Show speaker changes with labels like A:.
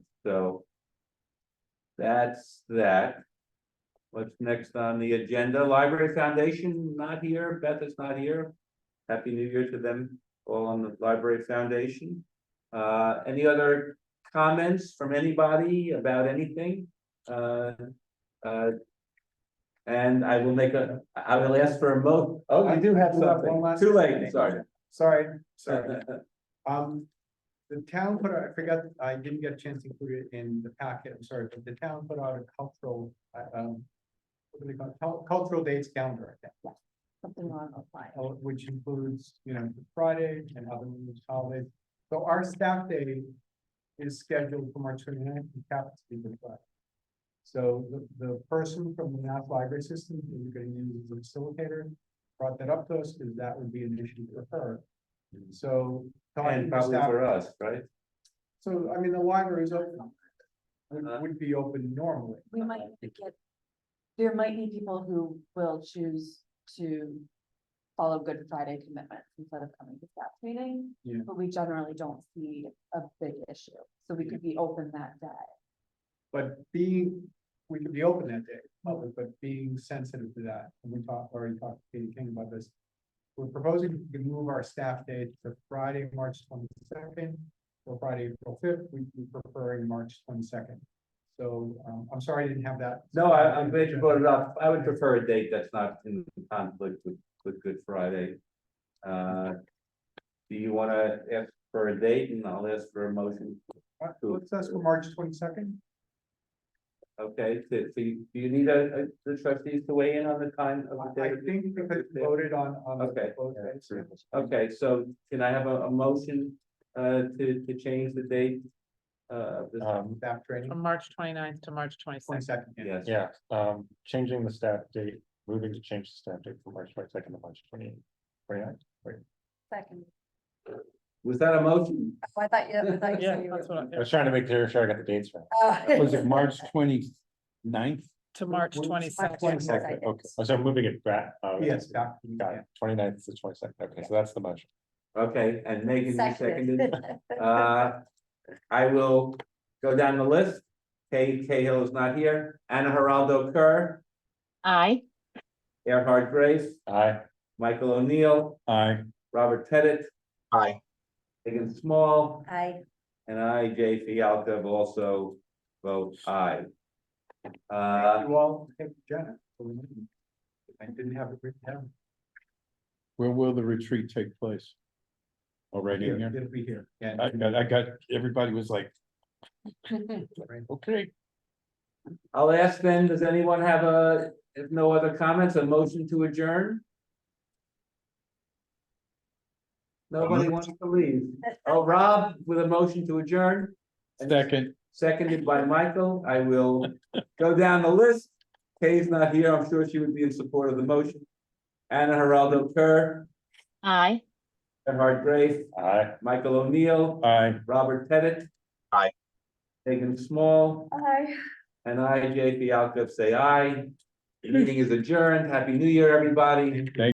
A: so. That's that. What's next on the agenda? Library Foundation not here, Beth is not here. Happy New Year to them, all on the Library Foundation. Uh, any other comments from anybody about anything? Uh, uh. And I will make a, I will ask for a mo, oh,
B: I
A: you
B: do have one
A: something,
B: last.
A: too late, sorry.
B: Sorry, sorry. Um, the town put out, I forgot, I didn't get a chance to include it in the packet, I'm sorry, but the town put out a cultural, uh, um. What do they call it? Cul- Cultural dates calendar, I think,
C: Something on apply.
B: uh, which includes, you know, Friday and other religious holidays. So our staff day is scheduled for March 29th. ninth, and happens to be the Friday. So the, the person from the Mass Library System, who we're gonna use as a facilitator, brought that up to us, because that would be an issue for her. So. talking
A: Mm. And
B: to
A: probably
B: staff-
A: for us, right?
B: so, I mean, the library is open.
A: Uh-huh.
B: Would, would be open normally.
C: We might get, there might be people who will choose to follow Good Friday commitments instead of coming to staff meeting.
B: Yeah.
C: But we generally don't see a big issue, so we could be open that day.
B: But being, we could be open that day, public, but being sensitive to that, and we talked, already talked to Katie King about this. We're proposing to move our staff day to Friday, March twenty-second, or Friday, April fifth, we, we preferring March twenty-second. So, um, I'm sorry I didn't have that.
A: No, I, I'm glad you brought it up. I would prefer a date that's not in conflict with, with Good Friday. Uh, do you wanna ask for a date and I'll ask for a motion?
B: Uh, Let's, that's for March twenty-second,
A: Okay, so, so you, do you need a, a, the trustees to weigh in on the time of the
B: I
A: day?
B: think because it's voted on, on. the
A: Okay.
B: proposed dates.
A: Okay, so can I have a, a motion, uh, to, to change the date? Uh, of this,
D: Um,
B: Staff training,
E: From March 29th to March twenty-sixth.
B: twenty-second, yeah.
A: yes,
D: yeah, um, changing the staff date, moving to change the staff date from March twenty second to March twenty. Twenty nine,
C: Second. Oh,
A: was that a motion?
C: I thought you, Oh. I thought
E: Yeah, that's what,
D: I
E: I-
D: was trying to make clear, sure I got the dates right.
F: Was it March twenty ninth?
E: to March
B: March
E: twenty-second.
B: 22nd.
D: Okay, okay, Oh, so I'm moving it back. uh,
B: Yes, staff,
D: Got
B: yeah.
D: it, twenty ninth to twenty second, okay, so that's the motion.
A: Okay, and Megan, you seconded? Uh, I will go down the list. Kay Cahill is not here. Anna Geraldo Kerr,
G: Aye.
A: Erhard Grace,
D: Aye,
A: Michael O'Neill,
F: I
A: Robert Pettit.
F: Aye.
A: Megan Small,
C: I.
A: and I, Jay Fialka, will also vote aye. Uh,
B: Thank you all, thank you, Jenna. for reminding me. I didn't have it written down.
F: where will the retreat take place? Already in here?
B: It'll be here. Yeah.
F: I got, I got, everybody was like, okay.
A: I'll ask then, does anyone have a, if no other comments, a motion to adjourn? Nobody wants to leave. Oh, Rob with a motion to adjourn.
F: Second,
A: Seconded by Michael, I will go down the list. Kay's not here, I'm sure she would be in support of the motion. Anna Geraldo Kerr,
G: Aye.
A: Everhard Grace,
D: aye.
A: Michael O'Neill,
F: I.
A: Robert Pettit.
F: Aye.
A: Megan Small,
C: Aye.
A: and I, Jay Fialka, say aye. The Meeting is adjourned, happy new year, everybody.